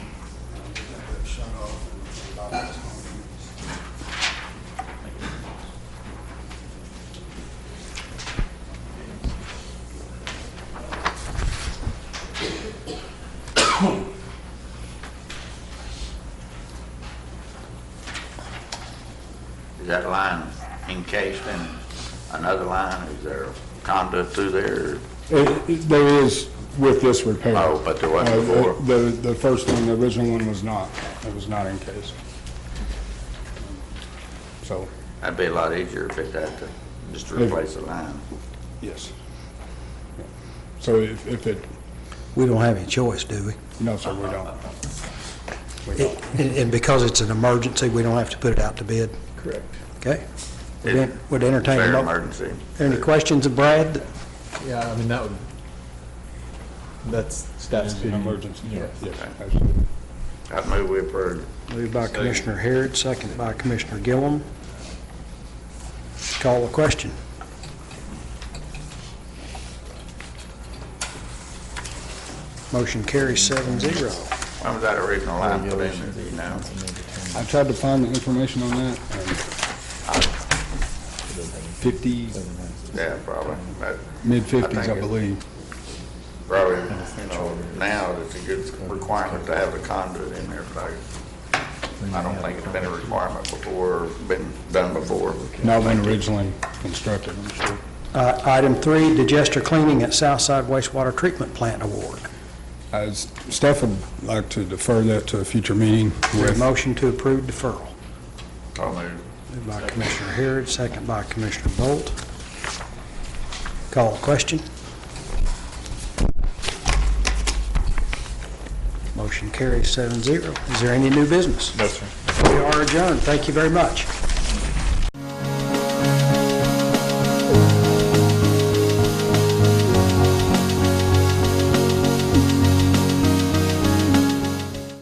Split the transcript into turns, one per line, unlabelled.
Is that line encased in another line? Is there conduit through there?
It- it- There is with this repair.
Oh, but there wasn't
Uh, the-
before.
The, the first one, the original one was not, it was not encased. So,
That'd be a lot easier if it had to just
If-
replace the line.
yes. So if, if it,
We don't have any choice, do we?
no, sir, we don't. We
It-
don't.
And and because it's an emergency, we don't have to put it out to bid,
Correct.
okay? Would en- Would entertain a
Fair
mo-
emergency.
Any questions of Brad?
Yeah, I mean, that would, that's staff's
It's an
opinion.
emergency, yes, absolutely.
I move we approve.
Moved by Commissioner Harrod, seconded by Commissioner Gillum. Call the question. Motion carries seven zero.
When was that original line put in there, do you know?
I tried to find the information on that, and fifties,
Yeah, probably. But
mid-fifties,
think
I
it-
believe.
probably, you know, now it's a good requirement to have the conduit in there, but I- I don't think it's been a requirement before, or been done before.
Not when originally constructed, I'm sure.
Uh, Item three, digester cleaning at Southside Wastewater Treatment Plant Award.
Uh, Staff would like to defer that to a future meeting
Is there
with
a motion to approve deferral?
I'll move.
Moved by Commissioner Harrod, second by Commissioner Bolt. Call the question. Motion carries seven zero. Is there any new business?
No, sir.
We are adjourned. Thank you very much.